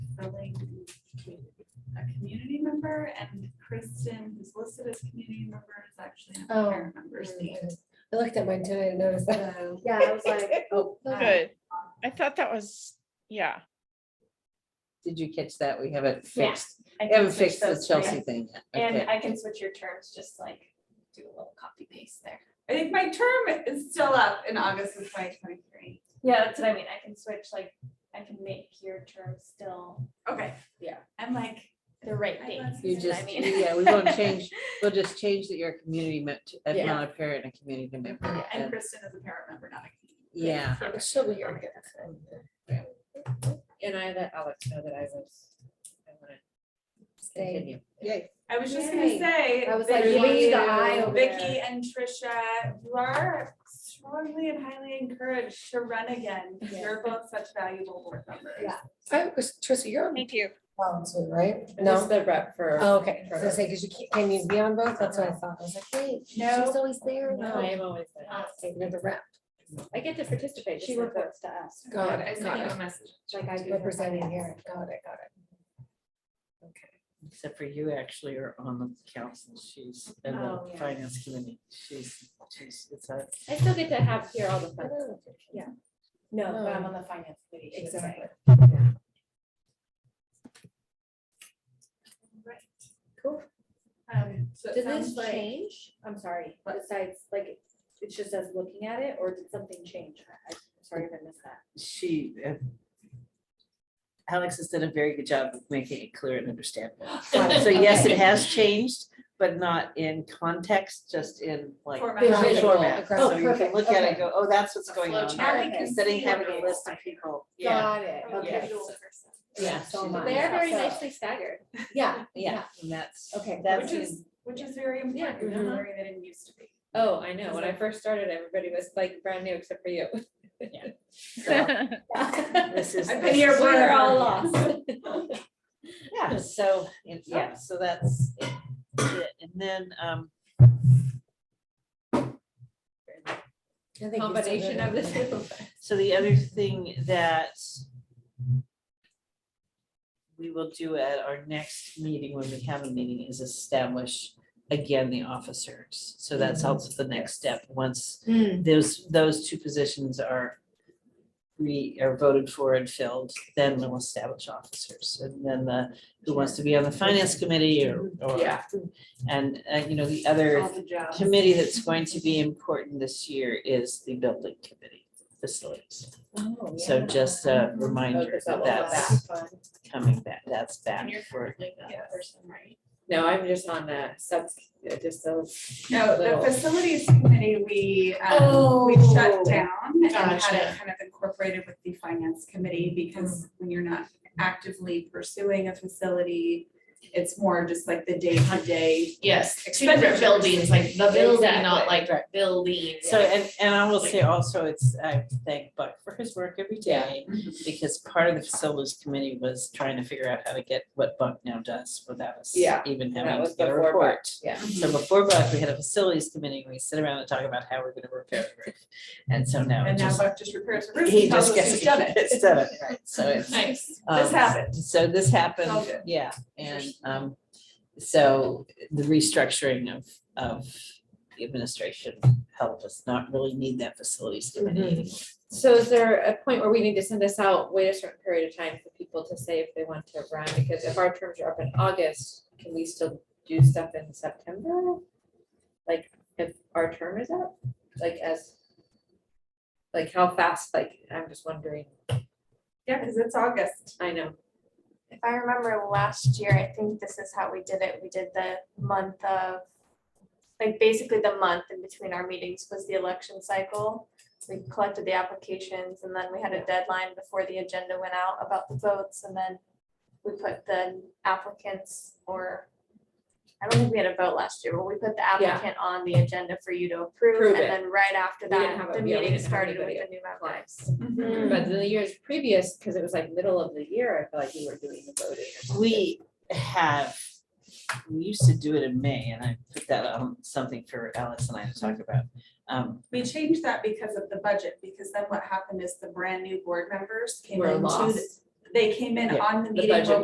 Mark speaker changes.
Speaker 1: member and Kristen, who's listed as community member, is actually a
Speaker 2: Oh.
Speaker 1: parent member seat.
Speaker 2: I looked at mine today and noticed that. Um,
Speaker 3: Yeah, I was like, oh,
Speaker 4: Good. I thought that was, yeah.
Speaker 5: Did you catch that? We haven't
Speaker 3: Yeah,
Speaker 5: fixed,
Speaker 3: I
Speaker 5: we
Speaker 3: can
Speaker 5: haven't
Speaker 3: switch
Speaker 5: fixed the
Speaker 3: those three.
Speaker 5: Chelsea thing yet.
Speaker 3: And
Speaker 5: Okay.
Speaker 3: I can switch your terms, just like do a little copy paste there.
Speaker 1: I think my term is still up in August of twenty twenty-three.
Speaker 3: Yeah, that's what I mean. I can switch, like, I can make your term still
Speaker 1: Okay.
Speaker 3: Yeah.
Speaker 1: I'm like,
Speaker 3: the right
Speaker 1: I
Speaker 3: date.
Speaker 1: love
Speaker 5: You
Speaker 3: is what I
Speaker 5: just,
Speaker 3: mean.
Speaker 5: yeah, we won't change, we'll just change that you're a community member,
Speaker 2: Yeah.
Speaker 5: not a parent, a community member.
Speaker 1: and
Speaker 5: and-
Speaker 1: Kristen is a parent member, not a
Speaker 5: Yeah,
Speaker 2: She'll be here.
Speaker 6: And I let Alex know that I was, I want to
Speaker 2: Stay.
Speaker 6: continue.
Speaker 5: yay.
Speaker 1: I was just gonna
Speaker 2: Yay.
Speaker 1: say.
Speaker 2: I was
Speaker 1: that
Speaker 2: like,
Speaker 6: you
Speaker 1: Vicky-
Speaker 6: need the eye
Speaker 2: over
Speaker 1: Vicky
Speaker 2: there.
Speaker 1: and Trisha, you are strongly and highly encouraged to run again.
Speaker 2: Yeah.
Speaker 1: You're both such valuable board members.
Speaker 2: Yeah. I was, Trista, Oh, you're on
Speaker 4: Thank you.
Speaker 2: balance, right?
Speaker 6: Just
Speaker 2: No,
Speaker 6: the rep for,
Speaker 2: Oh, okay, I was gonna say, cause you can't, can you be on both? That's what I thought. I was like, wait, she's
Speaker 1: No.
Speaker 2: always there.
Speaker 6: no, I am always, there.
Speaker 2: Ah, okay, You're the rep.
Speaker 6: I get to participate.
Speaker 3: She
Speaker 6: just like that.
Speaker 3: reports to us.
Speaker 2: Got it, got it.
Speaker 1: message.
Speaker 3: Like I do. her
Speaker 2: Representing
Speaker 3: finance.
Speaker 2: here. Got it, got it.
Speaker 5: Except for you actually are on the council, she's in
Speaker 3: Oh,
Speaker 5: the
Speaker 3: yeah.
Speaker 5: finance committee, she's, she's, it's a.
Speaker 6: I still get to have here all the fun.
Speaker 2: Oh,
Speaker 3: No, but I'm
Speaker 2: No.
Speaker 3: on the finance committee. she was saying.
Speaker 2: Exactly.
Speaker 3: Cool.
Speaker 1: Um, so it
Speaker 3: Did
Speaker 1: sounds
Speaker 3: this
Speaker 1: like-
Speaker 3: change? I'm sorry, besides, like, it's just us looking at it, or did something change? I- I'm sorry if I missed that.
Speaker 5: she. uh, Alex has done a very good job of making it clear and understandable. So yes, it has changed, but not in context, just in like.
Speaker 1: Format.
Speaker 2: Visual.
Speaker 5: the Format,
Speaker 2: Okay.
Speaker 5: so you can
Speaker 6: perfect,
Speaker 5: look at it
Speaker 6: okay.
Speaker 5: and go, oh, that's what's going on.
Speaker 6: flowchart.
Speaker 5: there,"
Speaker 6: Okay.
Speaker 5: Instead of having a list of people.
Speaker 6: Got it.
Speaker 1: I'm a
Speaker 6: Okay.
Speaker 1: visual person.
Speaker 2: Yeah,
Speaker 5: she
Speaker 2: so
Speaker 5: did
Speaker 2: am I.
Speaker 6: They are very
Speaker 2: So-
Speaker 6: nicely staggered.
Speaker 2: Yeah,
Speaker 5: Yeah, and that's.
Speaker 2: Okay.
Speaker 5: That's.
Speaker 1: Which is, which is very important, in a
Speaker 2: Mhm.
Speaker 1: area that it used to be.
Speaker 6: Oh, I know. When I first started, everybody was like brand new except for you.
Speaker 5: so This is.
Speaker 1: I've been here
Speaker 6: We were all
Speaker 1: forever.
Speaker 6: lost.
Speaker 5: Yeah, so, and- yeah, so that's it. And then, um,
Speaker 2: I think you still
Speaker 6: Combination
Speaker 2: did
Speaker 6: of
Speaker 2: it.
Speaker 6: the two.
Speaker 5: So the other thing that we will do at our next meeting, when we have a meeting, is establish again the officers. So that's also the next step. Once those, those two positions are we are voted for and filled, then we'll establish officers. And then the, who wants to be on the finance committee or, or-
Speaker 6: Yeah.
Speaker 5: And, uh, you know, the other
Speaker 1: the jobs.
Speaker 5: committee that's going to be important this year is the building committee facilities.
Speaker 6: Oh, yeah.
Speaker 5: So just a reminder
Speaker 6: Focus
Speaker 5: that
Speaker 6: on
Speaker 5: that's
Speaker 6: that.
Speaker 5: coming back, that's
Speaker 6: And
Speaker 5: back
Speaker 6: you're
Speaker 5: for,
Speaker 6: Like that
Speaker 1: Yes.
Speaker 6: person, right? No, I'm just on the sub, just those.
Speaker 1: No,
Speaker 6: little-
Speaker 1: the facilities committee, we, um, we
Speaker 6: Oh.
Speaker 1: shut down and had it
Speaker 5: Gotcha.
Speaker 1: kind of incorporated with the finance committee because when you're not actively pursuing a facility, it's more just like the day-to-day.
Speaker 7: Yes, two different buildings, like the building, not like building.
Speaker 5: so, and, and I will say also, it's, I thank Buck for his work every day. Because part of the facilities committee was trying to figure out how to get what Buck now does without us
Speaker 6: Yeah,
Speaker 5: even
Speaker 6: that
Speaker 5: having
Speaker 6: was
Speaker 5: to get a
Speaker 6: before Buck.
Speaker 5: report.
Speaker 6: Yeah.
Speaker 5: So before Buck, we had a facilities committee, we sit around and talk about how we're gonna repair the roof. And so now it
Speaker 1: And now
Speaker 5: just,
Speaker 1: Buck just repairs the roof
Speaker 5: he
Speaker 1: and tells
Speaker 5: just
Speaker 1: us
Speaker 5: gets.
Speaker 1: who's done it.
Speaker 5: It's done it, right, so it's.
Speaker 7: Nice.
Speaker 1: This
Speaker 5: Um,
Speaker 1: happened.
Speaker 5: So this
Speaker 1: All
Speaker 5: happened,
Speaker 1: good.
Speaker 5: yeah, and um, so the restructuring of of the administration helped us not really need that facilities
Speaker 1: Mm-hmm.
Speaker 5: committee.
Speaker 2: Mm-hmm.
Speaker 5: anymore.
Speaker 6: So is there a point where we need to send this out, wait a certain period of time for people to say if they want to run? Because if our terms are up in August, can we still do stuff in September? Like, if our term is up, like as, like how fast, like, I'm just wondering,
Speaker 1: Yeah, because it's August.
Speaker 6: I know.
Speaker 8: If I remember last year, I think this is how we did it. We did the month of, like, basically the month in between our meetings was the election cycle. We collected the applications and then we had a deadline before the agenda went out about the votes and then we put the applicants or, I don't think we had a vote last year, but we put the applicant on the agenda for you to approve.
Speaker 6: Prove
Speaker 8: And
Speaker 6: it.
Speaker 8: then right after
Speaker 6: We didn't have
Speaker 8: that, the
Speaker 6: a- yeah, we didn't
Speaker 8: meeting
Speaker 6: have
Speaker 8: started with
Speaker 6: anybody
Speaker 8: the new members.
Speaker 1: Mm-hmm. Hmm.
Speaker 6: But the years previous, because it was like middle of the year, I feel like we were doing the voting. or something.
Speaker 5: We have, we used to do it in May, and I put that on something for Alice and I to talk about. Um,
Speaker 1: We changed that because of the budget, because then what happened is the brand new board members came
Speaker 6: We're
Speaker 1: into,
Speaker 6: lost.
Speaker 1: the- they came in
Speaker 5: Yeah,
Speaker 1: on the
Speaker 6: the
Speaker 1: meeting
Speaker 6: budget
Speaker 1: when